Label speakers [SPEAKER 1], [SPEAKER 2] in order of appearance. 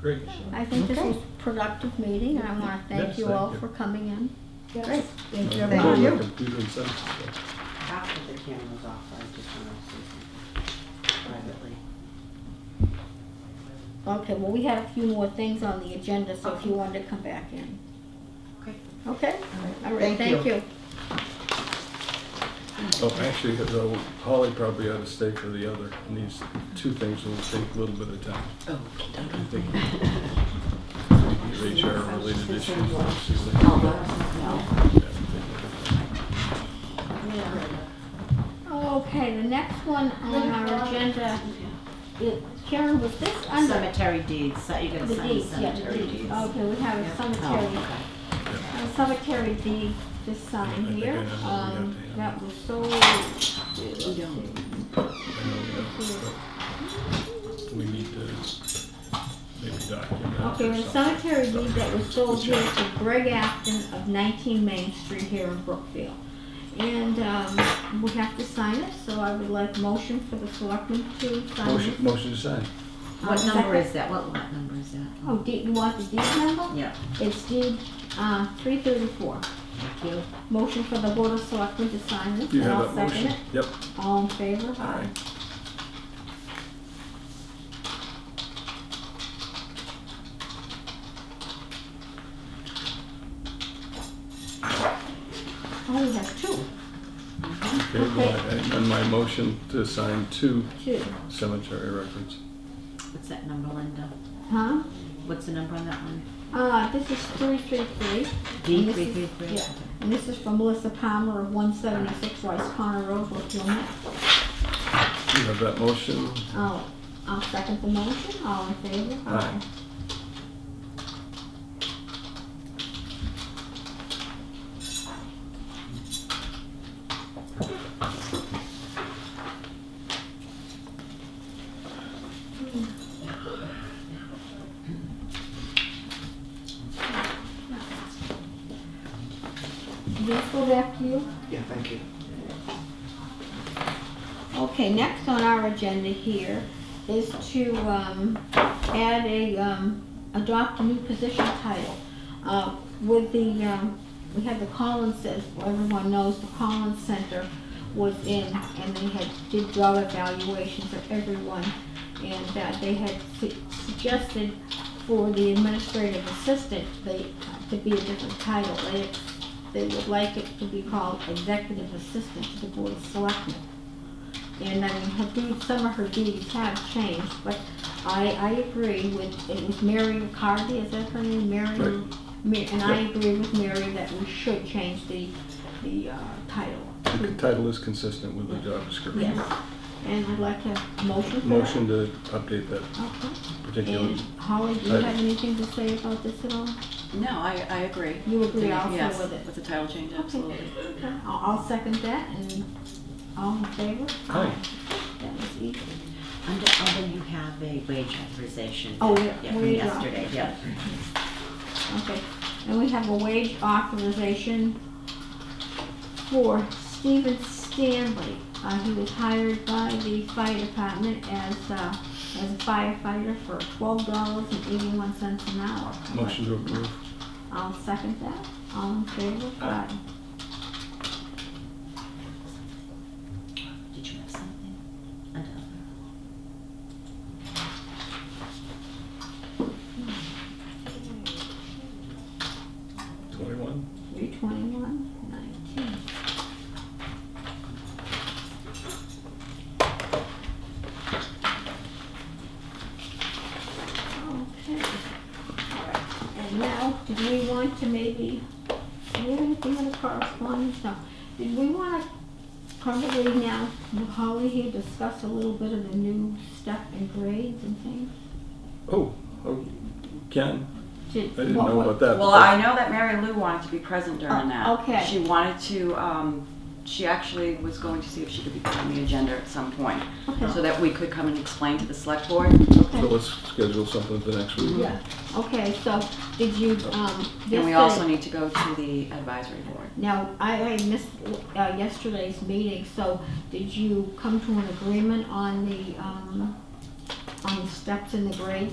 [SPEAKER 1] Great.
[SPEAKER 2] I think this
[SPEAKER 3] Okay.
[SPEAKER 2] was a productive meeting, and I want to thank
[SPEAKER 1] Yes,
[SPEAKER 2] you
[SPEAKER 1] thank
[SPEAKER 2] all
[SPEAKER 1] you.
[SPEAKER 2] for coming in.
[SPEAKER 3] Great. Thank you.
[SPEAKER 1] Go to
[SPEAKER 3] everyone.
[SPEAKER 1] the Computer and send it stuff.
[SPEAKER 4] After the camera's off, I just want to say something privately.
[SPEAKER 2] Okay, well, we had a few more things on the agenda, so if you wanted to come back in.
[SPEAKER 4] Okay.
[SPEAKER 2] Okay? All right,
[SPEAKER 3] Thank
[SPEAKER 2] thank
[SPEAKER 3] you.
[SPEAKER 2] you.
[SPEAKER 1] Oh, actually, though, Holly probably ought to stay for the other, and these two things will take a little bit of time.
[SPEAKER 4] Oh,
[SPEAKER 1] I think
[SPEAKER 4] okay.
[SPEAKER 1] HR related issues.
[SPEAKER 4] Oh,
[SPEAKER 2] Okay, the next one on our agenda, is- Karen, was this
[SPEAKER 4] no.
[SPEAKER 2] under
[SPEAKER 4] Cemetery deeds, so you're gonna
[SPEAKER 2] the
[SPEAKER 4] sign
[SPEAKER 2] deeds? Yeah, the
[SPEAKER 4] cemetery
[SPEAKER 2] deeds.
[SPEAKER 4] deeds.
[SPEAKER 2] Okay, we have a cemetery, Um,
[SPEAKER 4] Oh, okay.
[SPEAKER 2] a cemetery deed to sign
[SPEAKER 1] I think I
[SPEAKER 2] here.
[SPEAKER 1] know what we have
[SPEAKER 2] Um,
[SPEAKER 1] to have.
[SPEAKER 2] That was so,
[SPEAKER 1] I know we have, but We need to maybe document. it or
[SPEAKER 2] okay, the
[SPEAKER 1] something.
[SPEAKER 2] cemetery deed that was sold
[SPEAKER 1] Good
[SPEAKER 2] here
[SPEAKER 1] job.
[SPEAKER 2] to Greg Acton of 19 Main Street here in Brookfield. And um, we have to sign it, so I would like motion for the selectmen to sign
[SPEAKER 1] Motion,
[SPEAKER 2] it.
[SPEAKER 1] motion to sign.
[SPEAKER 4] What
[SPEAKER 2] Um,
[SPEAKER 4] number
[SPEAKER 2] second-
[SPEAKER 4] is that? What lot number is that?
[SPEAKER 2] Oh, deed- you want the deed number?
[SPEAKER 4] Yeah.
[SPEAKER 2] It's deed uh, 334.
[SPEAKER 4] Thank you.
[SPEAKER 2] Motion for the Board of Selectmen to sign this,
[SPEAKER 1] You
[SPEAKER 2] and
[SPEAKER 1] have
[SPEAKER 2] I'll
[SPEAKER 1] that
[SPEAKER 2] second
[SPEAKER 1] motion?
[SPEAKER 2] it.
[SPEAKER 1] Yep.
[SPEAKER 2] All in favor?
[SPEAKER 1] Aye.
[SPEAKER 2] Oh, we have two,
[SPEAKER 1] Okay, well, I amend my motion to sign two
[SPEAKER 2] two,
[SPEAKER 1] cemetery records.
[SPEAKER 4] What's that number, Linda?
[SPEAKER 2] huh?
[SPEAKER 4] What's the number on that one?
[SPEAKER 2] Uh, this is 333.
[SPEAKER 4] D
[SPEAKER 2] this
[SPEAKER 4] three
[SPEAKER 2] is-
[SPEAKER 4] three three?
[SPEAKER 2] yeah. And this is from Melissa Palmer of 176 Rice Corner Road, Brookfield, Mass.
[SPEAKER 1] You have that motion?
[SPEAKER 2] Oh, I'll second the motion, all in favor?
[SPEAKER 1] Aye.
[SPEAKER 2] Just go back to you.
[SPEAKER 4] Yeah, thank you.
[SPEAKER 2] Okay, next on our agenda here is to um, add a, um, adopt a new position title. Uh, With the, um, we had the Collins, as everyone knows, the Collins Center was in, and they had, did job evaluations of everyone, and that they had su- suggested for the administrative assistant, they, to be a different title. They, they would like it to be called executive assistant to the Board of Selectmen. And I mean, her deeds, some of her deeds have changed, but I, I agree with, it was Mary McCarthy, is that her name, Mary?
[SPEAKER 1] Right.
[SPEAKER 2] Ma- And I
[SPEAKER 1] Yep.
[SPEAKER 2] agree with Mary that we should change the, the, uh, title.
[SPEAKER 1] The title is consistent with the job description.
[SPEAKER 2] Yes, and I'd like a motion for that.
[SPEAKER 1] Motion to update that
[SPEAKER 2] Okay,
[SPEAKER 1] particular.
[SPEAKER 2] and Holly, do you
[SPEAKER 1] Right.
[SPEAKER 2] have anything to say about this at all?
[SPEAKER 5] No, I, I agree.
[SPEAKER 2] You agree also
[SPEAKER 5] Yes,
[SPEAKER 2] with it?
[SPEAKER 5] With the title change,
[SPEAKER 2] Okay.
[SPEAKER 5] absolutely.
[SPEAKER 2] Okay, I'll, I'll second that, and all in favor?
[SPEAKER 1] Aye.
[SPEAKER 2] That was easy.
[SPEAKER 4] Under other, you have a wage authorization.
[SPEAKER 2] Oh, yeah,
[SPEAKER 4] From
[SPEAKER 2] wage
[SPEAKER 4] yesterday, yeah.
[SPEAKER 2] Okay, and we have a wage authorization for Stephen Stanley. Uh, he was hired by the fire department as, uh, as a firefighter for twelve dollars and eighty-one cents an hour.
[SPEAKER 1] Motion to approve.
[SPEAKER 2] I'll second that. All in favor?
[SPEAKER 1] Aye.
[SPEAKER 4] Did you have something? Under other?
[SPEAKER 1] Twenty-one?
[SPEAKER 2] Three twenty-one, nineteen. Okay. And now, did we want to maybe, do we have anything in the correspondence? No. Did we want to probably now, with Holly here, discuss a little bit of the new stuff and grades and things?
[SPEAKER 1] Oh, oh, Ken,
[SPEAKER 2] Did-
[SPEAKER 1] I didn't
[SPEAKER 2] what-
[SPEAKER 1] know
[SPEAKER 2] what-
[SPEAKER 1] about that.
[SPEAKER 5] Well, I know that Mary Lou wanted to be present
[SPEAKER 2] Oh,
[SPEAKER 5] during that.
[SPEAKER 2] okay.
[SPEAKER 5] She wanted to, um, she actually was going to see if she could be put on the agenda at some point, so
[SPEAKER 2] Okay,
[SPEAKER 5] that we could come and explain to the select board.
[SPEAKER 1] So
[SPEAKER 2] okay.
[SPEAKER 1] let's schedule something for next week.
[SPEAKER 2] Yeah, okay, so did you, um,
[SPEAKER 5] And we also
[SPEAKER 2] yesterday,
[SPEAKER 5] need to go to the advisory board.
[SPEAKER 2] now, I, I missed, uh, yesterday's meeting, so did you come to an agreement on the, um, on the steps in the grades